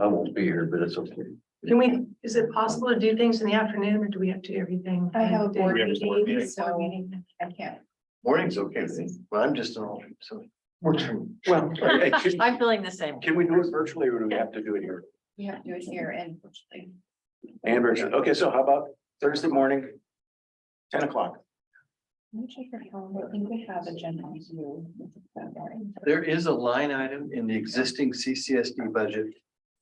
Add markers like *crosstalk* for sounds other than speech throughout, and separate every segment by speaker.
Speaker 1: I won't be here, but it's okay.
Speaker 2: Can we, is it possible to do things in the afternoon or do we have to do everything?
Speaker 3: I have a
Speaker 2: day?
Speaker 3: board
Speaker 4: We have a board meeting.
Speaker 3: meeting,
Speaker 2: Board
Speaker 3: so
Speaker 2: meeting.
Speaker 3: I can't.
Speaker 4: Morning's okay with me, but I'm just an alternate, so. it Works for me.
Speaker 5: *laughs*
Speaker 1: Well, I- I- can-
Speaker 5: I'm feeling the same.
Speaker 1: can we do it virtually or do we have to do it here?
Speaker 3: We have to do it here and virtually.
Speaker 1: And virtually, okay, so how about Thursday morning? Ten o'clock.
Speaker 3: Let me check your calendar. I think we have agenda on you that morning.
Speaker 4: There is a line item in the existing CCSD budget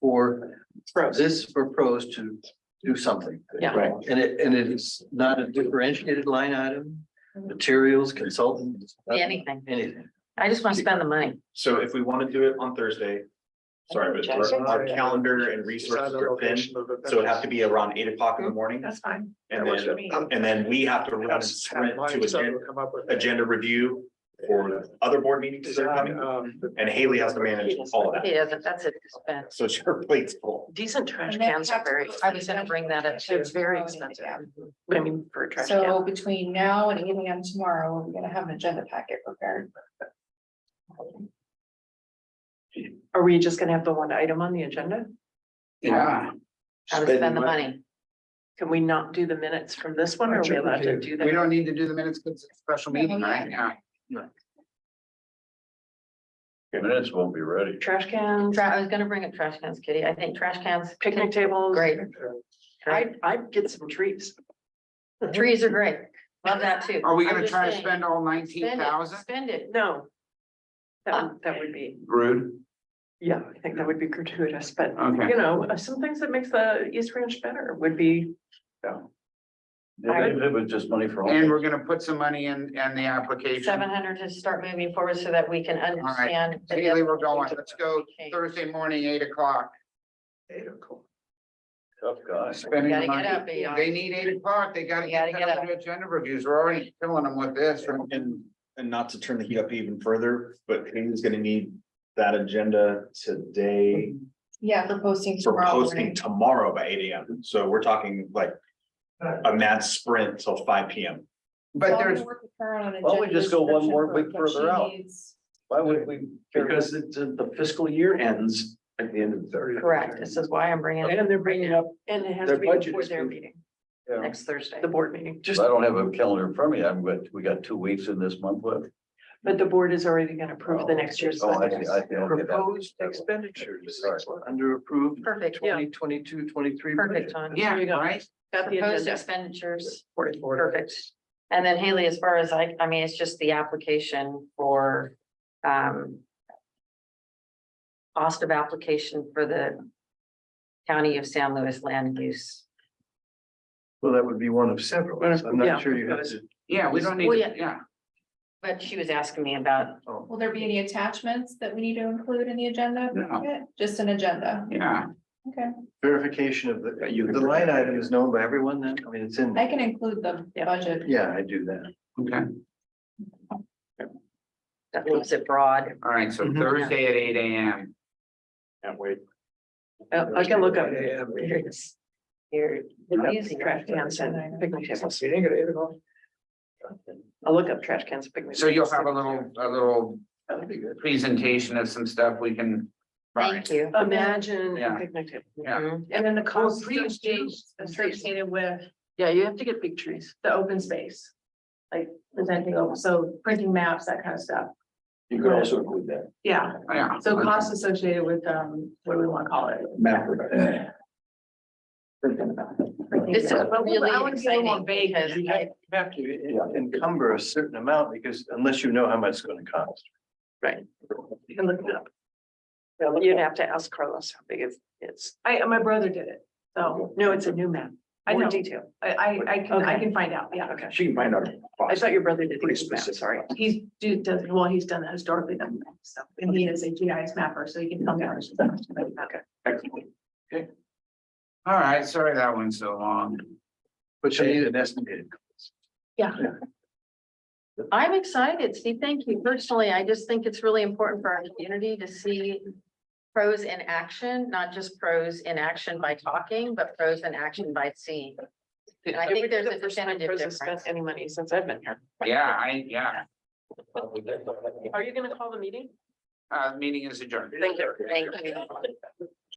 Speaker 4: for this for pros to do something.
Speaker 5: Yeah.
Speaker 1: Right.
Speaker 4: And it, and it is not a differentiated line item, materials, consultants. nothing,
Speaker 5: Anything.
Speaker 4: Anything.
Speaker 5: I just want to spend the money.
Speaker 6: So if we want to do it on Thursday, sorry, but our- our calendar and resources are thin. So it'd have to be around eight o'clock in the morning
Speaker 2: That's fine.
Speaker 6: and
Speaker 2: That works for
Speaker 6: then,
Speaker 2: me.
Speaker 6: and then we have to run a sprint to agenda, agenda review for other board meetings that are coming.
Speaker 2: um,
Speaker 6: And Haley has to manage all of
Speaker 5: He
Speaker 6: that.
Speaker 5: doesn't, that's it. It's bad.
Speaker 6: So her plate's full.
Speaker 2: Decent trash
Speaker 3: And then
Speaker 2: cans are
Speaker 3: tax-
Speaker 2: very,
Speaker 5: I was gonna bring that up. too. It's very expensive.
Speaker 2: but I mean, for a trash can.
Speaker 3: So between now and eight AM tomorrow, we're gonna have an agenda packet prepared.
Speaker 2: Are we just gonna have the one item on the agenda?
Speaker 1: Yeah.
Speaker 5: I would spend the money.
Speaker 2: Can we not do the minutes from this one? Are we allowed to do that?
Speaker 7: We don't need to do the minutes because it's a special meeting, right? Yeah.
Speaker 1: Minutes won't be ready.
Speaker 2: Trash cans,
Speaker 5: Tra- I was gonna bring up trash cans, Kitty. I think trash cans.
Speaker 2: picnic tables.
Speaker 5: Great.
Speaker 2: I, I'd get some trees.
Speaker 5: Trees are great. Love that too.
Speaker 7: Are we
Speaker 5: I'm
Speaker 7: gonna
Speaker 5: just
Speaker 7: try to
Speaker 5: saying,
Speaker 7: spend all nineteen
Speaker 5: spend it,
Speaker 7: thousand?
Speaker 5: Spend it.
Speaker 2: No. That, would- that would be,
Speaker 1: Rude.
Speaker 2: yeah, I think that would be gratuitous, but
Speaker 7: Okay.
Speaker 2: you know, uh, some things that makes the East Ranch better would be,
Speaker 1: It it was just money for all.
Speaker 7: And we're gonna put some money in, in the application.
Speaker 5: Seven hundred to start moving forward so that we can understand. the
Speaker 7: Haley, we're going.
Speaker 5: definition
Speaker 7: Let's
Speaker 5: of
Speaker 7: go
Speaker 5: change.
Speaker 7: Thursday morning, eight o'clock.
Speaker 1: Tough guys.
Speaker 7: Spending
Speaker 5: Gotta
Speaker 7: the
Speaker 5: get up,
Speaker 7: money.
Speaker 5: Eon.
Speaker 7: They need eight o'clock. They gotta
Speaker 5: You gotta
Speaker 7: get
Speaker 5: get
Speaker 7: that on the agenda reviews. We're already killing them with this.
Speaker 6: And, and not to turn the heat up even further, but Haley's gonna need that agenda today
Speaker 3: Yeah, for posting
Speaker 6: for
Speaker 3: tomorrow
Speaker 6: posting
Speaker 3: morning.
Speaker 6: tomorrow by eight AM. So we're talking like a mad sprint till five PM.
Speaker 7: But there's,
Speaker 1: Why don't we just go one more week further out?
Speaker 3: Because
Speaker 1: Why would we? Because the,
Speaker 4: uh,
Speaker 1: the fiscal year ends at the end of the thirty.
Speaker 5: Correct. This is why I'm bringing it
Speaker 2: and they're bringing up, and it has to
Speaker 1: Their
Speaker 2: be
Speaker 1: budget
Speaker 2: before
Speaker 1: is
Speaker 2: their
Speaker 1: good.
Speaker 2: meeting,
Speaker 5: next Thursday.
Speaker 2: the board meeting.
Speaker 1: Just, I don't have a calendar in front of me. I've got, we got two weeks in this month left.
Speaker 2: But the board is already gonna approve the next year's.
Speaker 1: Oh, I see,
Speaker 2: budget.
Speaker 1: I see, okay, that-
Speaker 4: Proposed expenditures under approved
Speaker 5: Perfect.
Speaker 2: Yeah.
Speaker 4: 2022-23
Speaker 5: Perfect
Speaker 4: budget.
Speaker 5: time.
Speaker 7: yeah,
Speaker 2: There you go.
Speaker 7: right?
Speaker 2: Got the
Speaker 5: Proposed
Speaker 2: agenda.
Speaker 5: expenditures,
Speaker 4: Support.
Speaker 5: perfect. And then Haley, as far as I, I mean, it's just the application for, um. Cost of application for the County of San Luis land use.
Speaker 4: Well, that would be one of several. so I'm
Speaker 2: Yeah.
Speaker 4: not sure you have to.
Speaker 7: Yeah, we don't need,
Speaker 5: Well,
Speaker 7: to- yeah.
Speaker 5: But she was asking me about,
Speaker 4: um,
Speaker 3: Will there be any attachments that we need to include in the agenda?
Speaker 7: No.
Speaker 3: packet? Just an agenda,
Speaker 7: Yeah,
Speaker 3: okay.
Speaker 4: Verification of the, you, the line item is known by everyone then, I mean, it's in,
Speaker 3: I can include the
Speaker 2: Yeah.
Speaker 3: budget.
Speaker 4: yeah, I do that.
Speaker 7: okay.
Speaker 5: that leaves it broad.
Speaker 7: All right, so
Speaker 4: Mhm.
Speaker 7: Thursday at eight AM.
Speaker 6: Can't wait.
Speaker 2: Uh, I can look up.
Speaker 5: You're using.
Speaker 2: Trash cans and picnic tables. I'll look up trash cans, picnic.
Speaker 7: So you'll have a
Speaker 2: tables.
Speaker 7: little, a little
Speaker 4: That'd be good.
Speaker 7: presentation of some stuff we can.
Speaker 5: Thank you.
Speaker 2: Imagine a
Speaker 7: Yeah.
Speaker 2: picnic table.
Speaker 7: Yeah.
Speaker 5: Mhm.
Speaker 2: And then the cost.
Speaker 3: trees, trees.
Speaker 2: Associated with. Yeah, you have to get big trees. The open space. Like presenting, so printing maps, that kind of stuff.
Speaker 1: You could also include that.
Speaker 2: Yeah,
Speaker 7: Yeah.
Speaker 2: so costs associated with, um, what do we want to call it?
Speaker 6: Map revision.
Speaker 5: This is really exciting because
Speaker 4: You
Speaker 5: I,
Speaker 4: have you have to encumber a certain amount because unless you know how much it's gonna cost.
Speaker 2: You can look it up. You'd have to ask Carlos how big it is. I, uh, my brother did it, so. No, it's a new map. I know. Detail. I, I, I can, I
Speaker 5: Okay.
Speaker 2: can find out, yeah. Okay.
Speaker 6: She can find out.
Speaker 2: I thought your brother did
Speaker 6: Pretty
Speaker 2: these maps,
Speaker 6: specific.
Speaker 2: sorry. He's, do, does, well, he's done that historically, done that stuff, and he is a GIS mapper, so he can tell me. how much it's gonna be. Okay.
Speaker 7: All right, sorry that one's so long.
Speaker 4: But you need an estimated.
Speaker 5: I'm excited. See, thank you. Personally, I just think it's really important for our community to see pros in action, not just pros in action by talking, but pros in action by seeing. And I
Speaker 2: It
Speaker 5: think
Speaker 2: would be
Speaker 5: there's
Speaker 2: the
Speaker 5: a
Speaker 2: first time
Speaker 5: definitive
Speaker 2: Pros has
Speaker 5: difference.
Speaker 2: Spent any money since I've been here.
Speaker 7: Yeah, I, yeah,
Speaker 2: Are you gonna call the meeting?
Speaker 7: uh, meeting is adjourned.
Speaker 5: Thank you.